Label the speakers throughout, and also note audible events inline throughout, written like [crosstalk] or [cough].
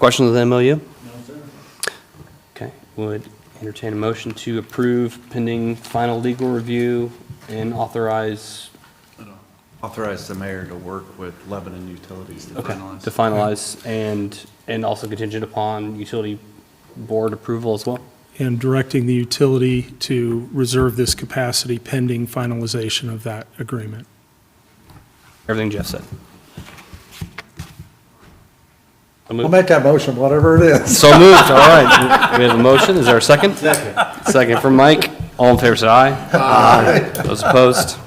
Speaker 1: Questions on the MOU? No, sir. Okay, would entertain a motion to approve pending final legal review and authorize,
Speaker 2: Authorize the mayor to work with Lebanon Utilities to
Speaker 1: okay,
Speaker 2: finalize.
Speaker 1: to finalize and, and also contingent upon utility board approval as well?
Speaker 3: and directing the utility to reserve this capacity pending finalization of that agreement.
Speaker 1: Everything Jeff said. So
Speaker 4: I'll
Speaker 1: moved,
Speaker 4: make that motion, whatever it
Speaker 1: [laughs]
Speaker 4: is.
Speaker 1: So moved, all right. We have a motion, is there a second? Second. Second from Mike, all in favor, say aye. Aye. Those opposed,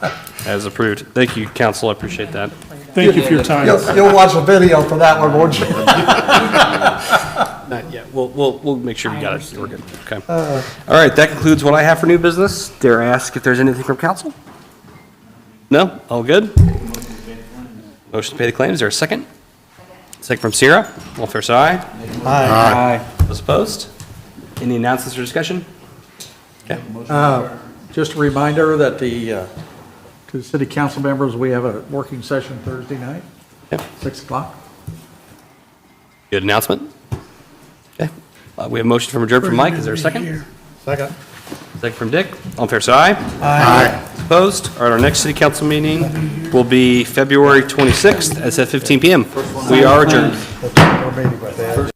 Speaker 1: as approved. Thank you, council, I appreciate that.
Speaker 3: Thank you for your time.
Speaker 4: You'll, you'll watch a video for that one, won't you?
Speaker 1: Not yet. We'll, we'll, we'll make sure we got it. We're good. Okay. Uh, All right, that concludes what I have for new business. Dare I ask if there's anything from council? No? All good? Motion to pay the claims. Is there a second? Second from Sierra. All fair side? Aye. Aye. Those opposed? Any announcements or discussion?
Speaker 4: Uh, Just a reminder that the, uh, to the city council members, we have a working session Thursday night,
Speaker 1: Yep.
Speaker 4: 6 o'clock.
Speaker 1: Good announcement? Okay. Uh, We have a motion from adjourned from Mike. Is there a second?
Speaker 4: Second.
Speaker 1: Second from Dick. All fair side? Aye. Opposed? All right, our next city council meeting will be February 26th at 7:15 PM. We are adjourned.
Speaker 4: That's our meeting with that.